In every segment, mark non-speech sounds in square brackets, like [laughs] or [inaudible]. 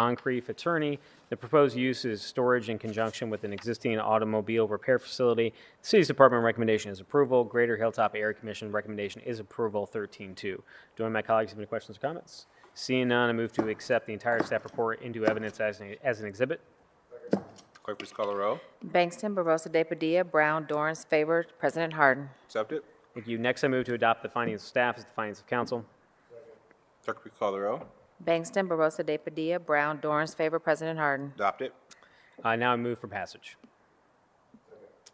Moncrief attorney. The proposed use is storage in conjunction with an existing automobile repair facility. City's Department recommendation is approval. Greater Hilltop Area Commission recommendation is approval 13-2. Do any of my colleagues have any questions or comments? Seeing none, I move to accept the entire staff report into evidence as an, as an exhibit. Clerk, please call the row. Bangston, Barosa de Padilla, Brown, Dorans, favored, President Harden. Accept it. Thank you. Next, I move to adopt the findings of staff as the findings of council. Clerk, please call the row. Bangston, Barosa de Padilla, Brown, Dorans, favored, President Harden. Adopt it. Uh, Now I move for passage.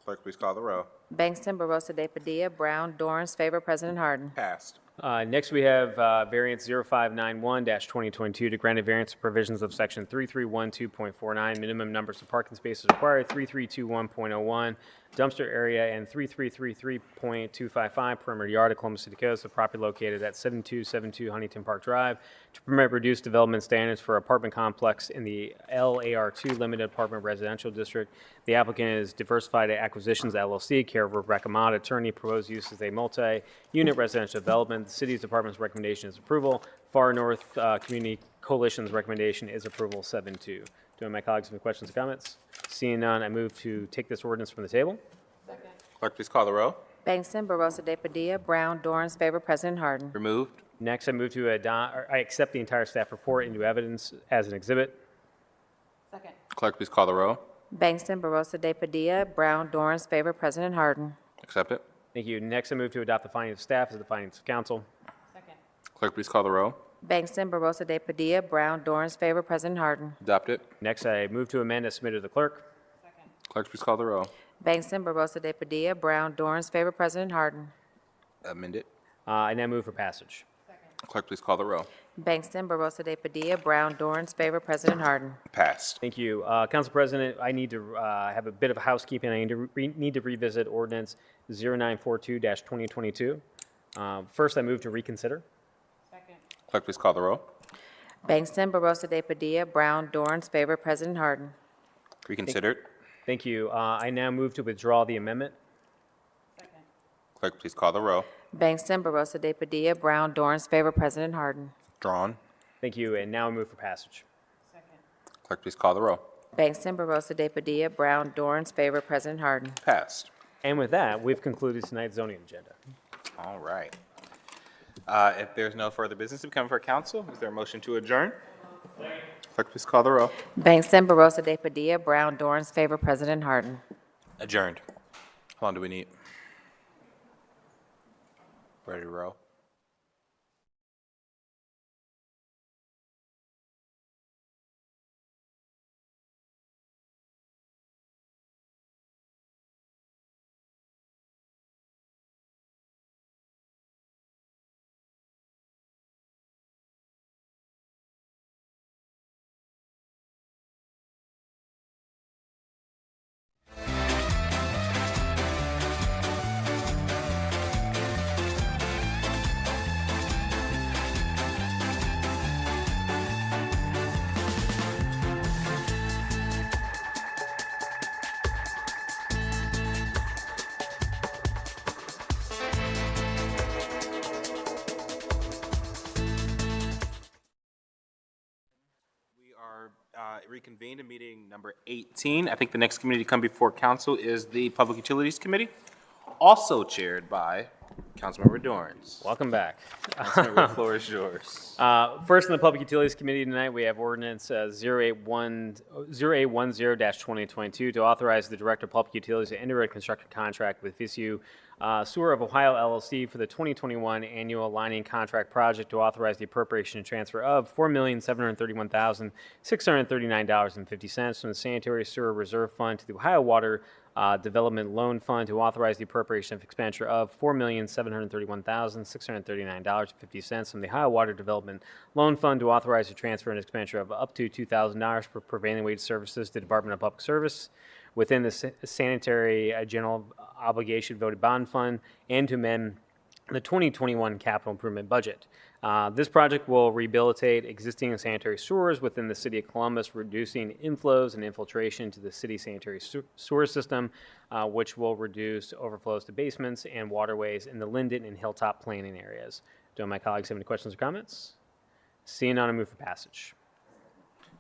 Clerk, please call the row. Bangston, Barosa de Padilla, Brown, Dorans, favored, President Harden. Passed. Uh, Next, we have uh, variance 0591-2022 to grant a variance to provisions of section 3312.49, minimum numbers of parking spaces required, 3321.01, dumpster area, and 3333.255 perimeter yard of Columbus City Coast, the property located at 7272 Huntington Park Drive, to permit reduced development standards for apartment complex in the LAR2 Limited Apartment Residential District. The applicant is Diversified Acquisitions LLC, care of Rebecca Mott, attorney, proposed use is a multi-unit residential development. The city's department's recommendation is approval. Far North uh, Community Coalition's recommendation is approval 7-2. Do any of my colleagues have any questions or comments? Seeing none, I move to take this ordinance from the table. Clerk, please call the row. Bangston, Barosa de Padilla, Brown, Dorans, favored, President Harden. Removed. Next, I move to adopt, or I accept the entire staff report into evidence as an exhibit. Clerk, please call the row. Bangston, Barosa de Padilla, Brown, Dorans, favored, President Harden. Accept it. Thank you. Next, I move to adopt the findings of staff as the findings of council. Clerk, please call the row. Bangston, Barosa de Padilla, Brown, Dorans, favored, President Harden. Adopt it. Next, I move to amend as submitted to the clerk. Clerk, please call the row. Bangston, Barosa de Padilla, Brown, Dorans, favored, President Harden. Amend it. Uh, And I move for passage. Clerk, please call the row. Bangston, Barosa de Padilla, Brown, Dorans, favored, President Harden. Passed. Thank you. Uh, Council President, I need to uh, have a bit of housekeeping. I need to re- need to revisit ordinance 0942-2022. Uh, First, I move to reconsider. Clerk, please call the row. Bangston, Barosa de Padilla, Brown, Dorans, favored, President Harden. Reconsidered. Thank you. Uh, I now move to withdraw the amendment. Clerk, please call the row. Bangston, Barosa de Padilla, Brown, Dorans, favored, President Harden. Drawn. Thank you, and now I move for passage. Clerk, please call the row. Bangston, Barosa de Padilla, Brown, Dorans, favored, President Harden. Passed. And with that, we've concluded tonight's zoning agenda. All right. Uh, If there's no further business to come for council, is there a motion to adjourn? Clerk, please call the row. Bangston, Barosa de Padilla, Brown, Dorans, favored, President Harden. Adjourned. How long do we need? Ready to roll? We are uh, reconvened in meeting number 18. I think the next committee to come before council is the Public Utilities Committee, also chaired by Councilmember Dorns. [laughs] Welcome back. Councilmember, the floor is yours. Uh, First, in the Public Utilities Committee tonight, we have ordinance uh, 081 0810-2022 to authorize the Director of Public Utilities to enter a construction contract with VCU uh, Sewer of Ohio LLC for the 2021 Annual Lining Contract Project to authorize the appropriation and transfer of $4,731,639.50 from the Sanitary Sewer Reserve Fund to the Ohio Water uh, Development Loan Fund to authorize the appropriation of expenditure of $4,731,639.50 from the Ohio Water Development Loan Fund to authorize the transfer and expenditure of up to $2,000 for prevailing wage services to Department of Public Service within the sa- sanitary uh, general obligation voted bond fund and to amend the 2021 capital improvement budget. Uh, This project will rehabilitate existing sanitary sewers within the city of Columbus, reducing inflows and infiltration to the city sanitary sew- sewer system, uh, which will reduce overflows to basements and waterways in the Linden and Hilltop planning areas. Do my colleagues have any questions or comments? Seeing none, I move for passage.